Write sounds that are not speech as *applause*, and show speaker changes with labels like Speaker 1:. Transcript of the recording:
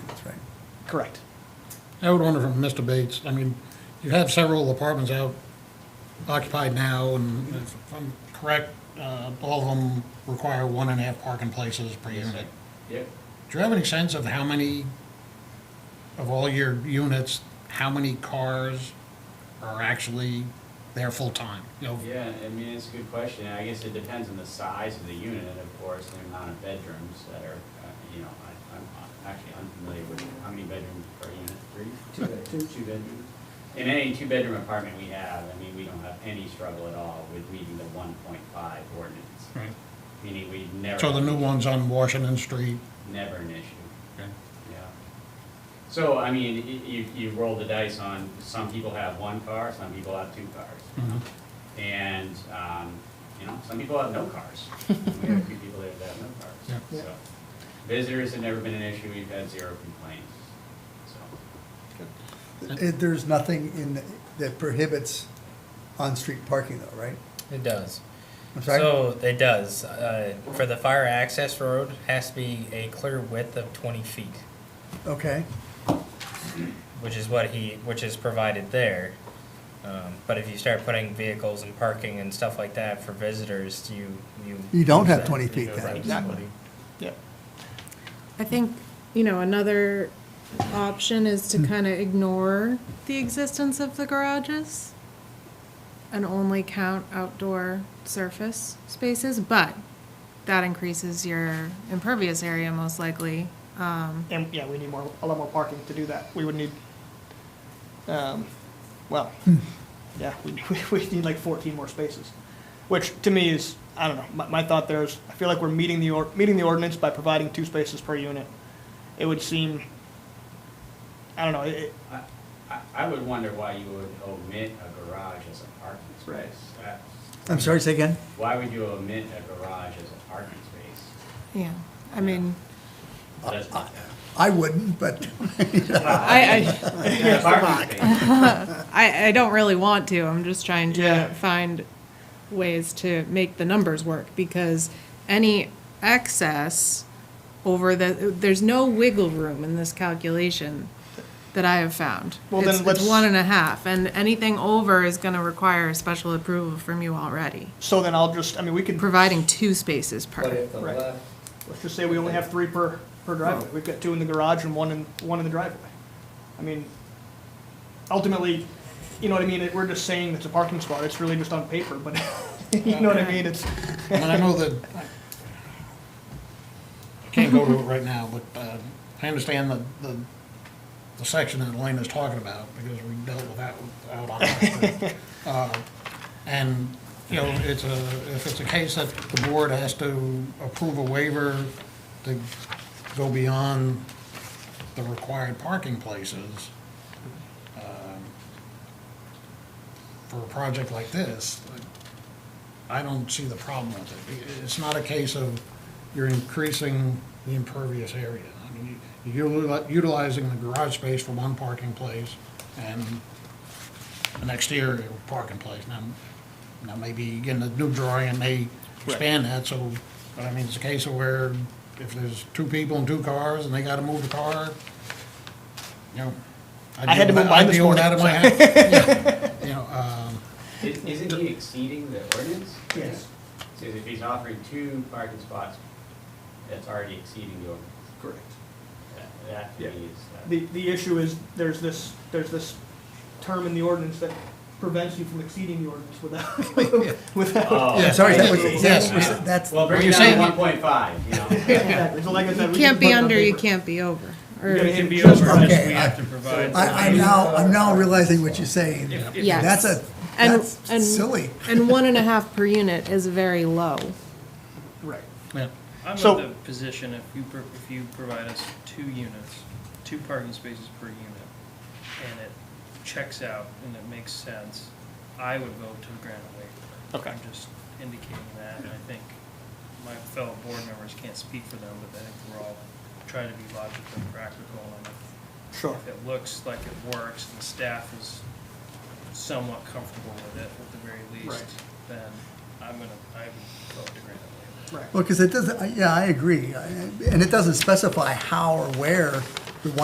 Speaker 1: Correct.
Speaker 2: I would wonder from Mr. Bates, I mean, you have several apartments out occupied now, and if I'm correct, uh, all of them require one and a half parking places per unit.
Speaker 3: Yep.
Speaker 2: Do you have any sense of how many, of all your units, how many cars are actually there full-time? You know,
Speaker 3: Yeah, I mean, it's a good question. I guess it depends on the size of the unit, of course, and the amount of bedrooms that are, uh, you know, I- I'm I'm actually unfamiliar with how many bedrooms per unit, three?
Speaker 1: Two bed- two.
Speaker 3: Two bedrooms. In any two-bedroom apartment we have, I mean, we don't have any struggle at all with meeting the one point five ordinance.
Speaker 2: Right.
Speaker 3: Meaning we never.
Speaker 2: So the new ones on Washington Street,
Speaker 3: Never an issue.
Speaker 2: okay,
Speaker 3: Yeah. So, I mean, y- you, you roll the dice on, some people have one car, some people have two cars. you
Speaker 2: Mm-hmm.
Speaker 3: know? And, um, you know, some people have no
Speaker 1: *laughs*
Speaker 3: cars. We have a few people that have no
Speaker 2: Yeah.
Speaker 3: cars, so. Visitors have never been an issue, we've had zero complaints, so.
Speaker 4: It- There's nothing in, the- that prohibits on-street parking though, right?
Speaker 5: It does.
Speaker 4: I'm sorry?
Speaker 5: So it does. Uh, for the fire access road, has to be a clear width of twenty feet,
Speaker 4: Okay,
Speaker 5: which is what he, which is provided there. Um, but if you start putting vehicles and parking and stuff like that for visitors, you, you.
Speaker 4: You don't
Speaker 5: lose
Speaker 4: have
Speaker 5: that.
Speaker 4: 20
Speaker 5: You
Speaker 4: feet
Speaker 5: go
Speaker 4: then.
Speaker 5: right to
Speaker 4: Exactly.
Speaker 5: 20.
Speaker 1: Yeah.
Speaker 6: I think, you know, another option is to kind of ignore the existence of the garages and only count outdoor surface spaces, but that increases your impervious area most likely. Um,
Speaker 1: And, yeah, we need more, a lot more parking to do that. We would need, um, well, yeah, *laughs* we, we need like fourteen more spaces. Which to me is, I don't know, my, my thought there is, I feel like we're meeting the or, meeting the ordinance by providing two spaces per unit. It would seem, I don't know, it, it-
Speaker 3: I, I- I would wonder why you would omit a garage as a parking
Speaker 1: Right.
Speaker 3: space. That's-
Speaker 4: I'm sorry, say again?
Speaker 3: Why would you omit a garage as a parking space?
Speaker 6: yeah, I mean,
Speaker 4: Uh,
Speaker 3: That's- *laughs*
Speaker 4: I wouldn't, but
Speaker 6: I,
Speaker 3: Yeah, Parking space.
Speaker 6: I, I, I don't really want to, I'm just trying
Speaker 1: Yeah.
Speaker 6: to find ways to make the numbers work, because any excess over the, there's no wiggle room in this calculation that I have found.
Speaker 1: Well, then
Speaker 6: It's-
Speaker 1: let's-
Speaker 6: It's one and a half, and anything over is gonna require a special approval from you already,
Speaker 1: so then I'll just, I mean, we could,
Speaker 6: providing two spaces
Speaker 7: But
Speaker 6: per.
Speaker 7: if the
Speaker 1: Right.
Speaker 7: left,
Speaker 1: let's just say we only have three per, per driveway. We've got two in the garage and one in, one in the driveway. I mean, ultimately, you know what I mean, we're just saying it's a parking spot, it's really just on paper, but, *laughs* you know what I mean, it's,
Speaker 2: And I know that, I can't go to it right now, but uh, I understand the, the, the section that Elaine is talking about, because we dealt with that out on. that. Uh, And, you know, it's a, if it's a case that the board has to approve a waiver to go beyond the required parking places, um, for a project like this, I don't see the problem with it. It's not a case of you're increasing the impervious area. I mean, you're utili- utilizing the garage space for one parking place and an exterior parking place. Now, now maybe again, the new drawing may expand that, so, but I mean, it's a case of where if there's two people and two cars and they gotta move the car, you know. I'd
Speaker 1: I had to
Speaker 2: deal with that-
Speaker 1: move mine
Speaker 2: I'd
Speaker 1: this
Speaker 2: deal with
Speaker 1: morning,
Speaker 2: that
Speaker 1: *laughs*
Speaker 2: in my house. Yeah. You know, um,
Speaker 3: Is- Isn't he exceeding the ordinance?
Speaker 1: Yes.
Speaker 3: So if he's offering two parking spots, that's already exceeding the ordinance.
Speaker 1: correct.
Speaker 3: That- That to
Speaker 1: Yeah.
Speaker 3: me is,
Speaker 1: The,
Speaker 3: uh,
Speaker 1: the issue is, there's this, there's this term in the ordinance that prevents you from exceeding the ordinance without, *laughs* without.
Speaker 3: Oh.
Speaker 2: Yeah,
Speaker 4: sorry, that was,
Speaker 2: Yes.
Speaker 4: that was- that's,
Speaker 3: well, bring
Speaker 2: you're
Speaker 3: it down
Speaker 2: saying-
Speaker 3: to one point five, you know?
Speaker 1: Exactly. So like I said,
Speaker 6: You
Speaker 1: we can
Speaker 6: can't be
Speaker 1: put it on
Speaker 6: under, you
Speaker 1: paper.
Speaker 6: can't be over.
Speaker 1: You gotta
Speaker 6: Or,
Speaker 1: hit
Speaker 3: be
Speaker 1: just
Speaker 3: over.
Speaker 1: right.
Speaker 4: okay. I-
Speaker 3: provide.
Speaker 4: I, I'm now, I'm now realizing what you're saying.
Speaker 6: yes.
Speaker 4: That's a,
Speaker 6: And- and-
Speaker 4: that's silly.
Speaker 6: And one and a half per unit is very low.
Speaker 1: Right.
Speaker 2: yeah.
Speaker 8: I'm
Speaker 1: So-
Speaker 8: of the position if you, pro- if you provide us two units, two parking spaces per unit, and it checks out and it makes sense, I would vote to grant a waiver.
Speaker 1: Okay.
Speaker 8: I'm just indicating that, and I think my fellow board members can't speak for them, but I think we're all trying to be logical and practical, and if-
Speaker 1: Sure.
Speaker 8: if it looks like it works and the staff is somewhat comfortable with it at the very least,
Speaker 1: Right.
Speaker 8: then I'm gonna, I would vote to grant a waiver.
Speaker 1: Right.
Speaker 4: Well, because it doesn't, I- yeah, I agree. I- And it doesn't specify how or where